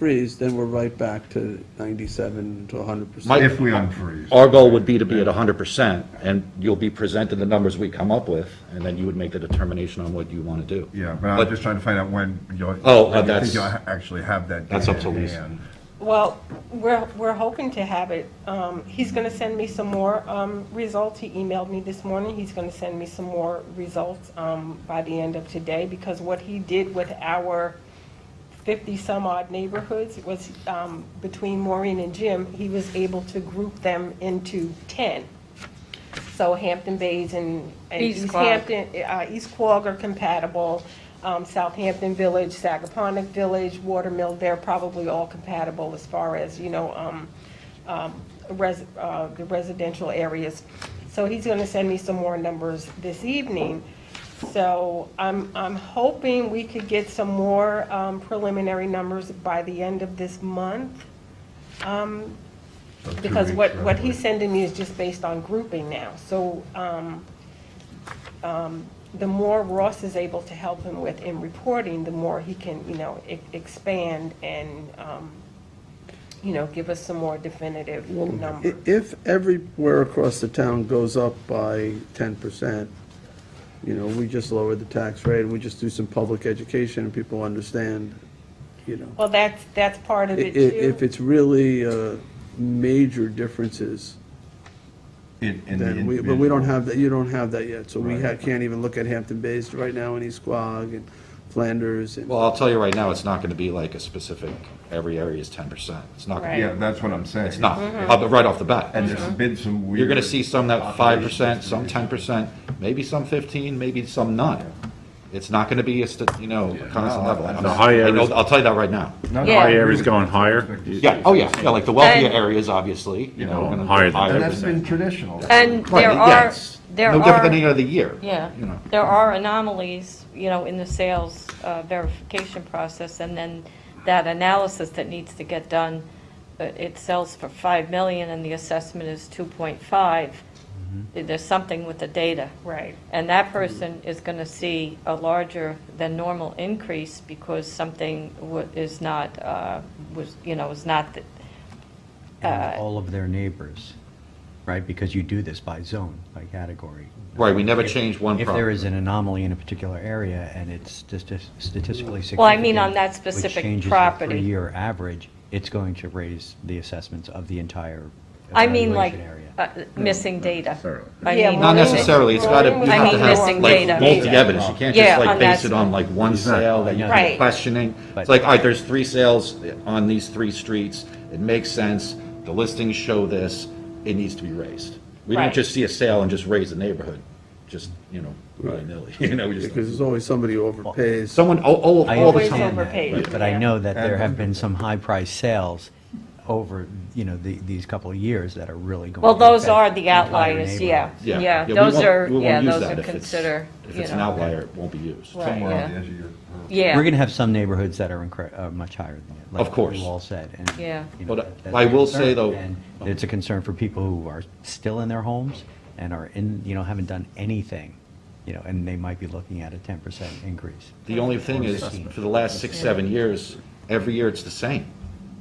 unfreeze, then we're right back to 97 to 100%. My- if we unfreeze. Our goal would be to be at hundred percent, and you'll be presented the numbers we come up with, and then you would make the determination on what you want to do. Yeah, but I'm just trying to find out when you'll. Oh, uh, when you think that's- You'll ha- actually have that. That's data up to in Lisa. hand. Well, we're, we're hoping to have it. Um, he's gonna send me some more, um, results. He emailed me this morning. He's gonna send me some more results, um, by the end of today because what he did with our fifty-some odd neighborhoods was, um, between Maureen and Jim, he was able to group them into ten. So Hampton Bays and, and East East Quogue. Hampton, uh, East Quogue are compatible. Um, Southampton Village, Sagaponic Village, Watermill, they're probably all compatible as far as, you know, um, um, res, uh, the residential areas. So he's gonna send me some more numbers this evening. So I'm, I'm hoping we could get some more, um, preliminary numbers by the end of this month. So two Because weeks, what, what roughly. he's sending me is just based on grouping now, so, um, um, the more Ross is able to help him with in reporting, the more he can, you know, e- expand and, um, you know, give us some more definitive I- numbers. If everywhere across the town goes up by 10%, you know, we just lower the tax rate, and we just do some public education, and people understand, you know. Well, that's, that's part I- i- of it If too. it's really uh, major differences, In- in the then we, but we don't individual. have that, you don't have that yet. So we ha- Right. can't even look at Hampton Bays right now, and East Quogue, and Flanders, and. Well, I'll tell you right now, it's not going to be like a specific, every area is ten percent. It's not going to Yeah, be, that's what I'm saying. it's not, uh, but right off the And bat. there's been some weird. You're going to see some that five percent, population some ten distribution. percent, maybe some fifteen, maybe some none. It's not going to be a, st- you know, a constant No, level. I the don't know. high I know- areas- I'll tell you that right now. Not Yeah. high Higher areas is going higher. Yeah, oh yeah, yeah, like the wealthier And- areas, obviously, you know. are gonna go Higher than And that. than that's been traditional. And Right, there yeah, are, it's there No different than any are, other year. yeah, You know. there are anomalies, you know, in the sales uh, verification process, and then that analysis that needs to get done, uh, it sells for 5 million and the assessment is 2.5. There's something with the data. Right, And that person is going to see a larger than normal increase because something wa- is not, uh, was, you know, is not, th- Uh, and all of their neighbors, right? Because you do this by zone, by category. Right, we never If- change one If there property. is an anomaly in a particular area and it's stati- statistically significant. Well, I mean on that which specific changes the property. three-year average, it's going to raise the assessments of the entire I mean like evaluation area. uh, missing data. necessarily. I Yeah, mean- well, Not necessarily, it's gotta, you Maureen have to was- have, Missing like, data. multi evidence, you can't Yeah, just like on base that- it on like one Exactly. sale that you Right. keep questioning. It's But- like, all right, there's three sales on these three streets, it makes sense, the listings show this, it needs to be raised. We don't Right. just see a sale and just raise the neighborhood, just, you know, willy-nilly, you know, we Because just, there's always somebody who overpays. someone, all, all, I all the Always time. overpaid, understand that, But I yeah. know that there have And- been some high-priced sales over, you know, the- these couple of years that are really going to Well, affect. those are the entire outliers, yeah, neighborhoods. Yeah. yeah, we those won't- are, we won't yeah, use those that are if it's- consider, If you it's an know. outlier, it won't be used. Right. Somewhere on yeah. the edge of your. We're going Yeah, to have some neighborhoods that are incre- uh, much higher than that. Of course. Like you all said. and, Yeah. you know, But, uh, that's I a will say, concern. though- And It's a concern for people who are still in their homes and are in, you know, haven't done anything, you know, and they might be looking at a 10% increase. The only thing is, for the last six, seven years, every year it's the same.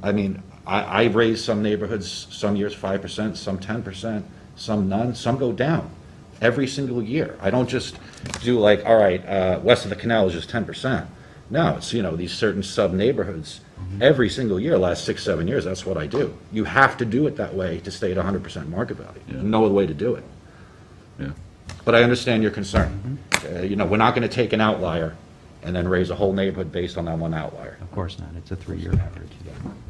I mean, I, I raise some neighborhoods, some years five percent, some ten percent, some none, some go down, every single year. I don't just do like, all right, uh, west of the canal is just ten percent. No, it's, you know, these certain sub-neighborhoods, every single year, last six, seven years, that's what I do. You have to do it that way to stay at hundred percent market value. There's No other way to do it. But I understand your concern. Uh, You know, we're not going to take an outlier and then raise a whole neighborhood based on that one outlier. Of course not, it's a three-year average.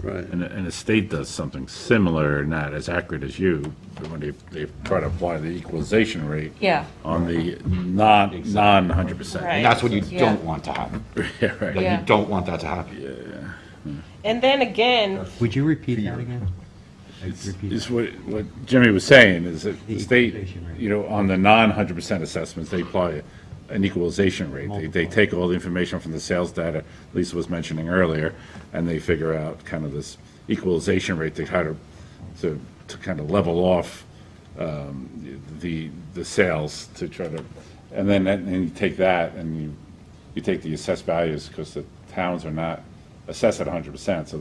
Right. And, and the state does something similar, not as accurate as you, but when they, they try to apply the equalization rate. Yeah. On the non, non hundred percent. Right. And that's what you Yeah. don't want to happen. Yeah, right. Like, Yeah. You don't want that to happen. and then again, Would you repeat that again? It's Repeat it's what, what Jimmy was saying, is that the The state, equalization rate. you know, on the non-hundred percent assessments, they apply an equalization rate. They, they take all the information from the sales data Lisa was mentioning earlier, and they figure out kind of this equalization rate to try to, to, to kind of level off um, the, the sales to try to, and then, and you take that and you, you take the assessed values, because the towns are not assessed at hundred percent, so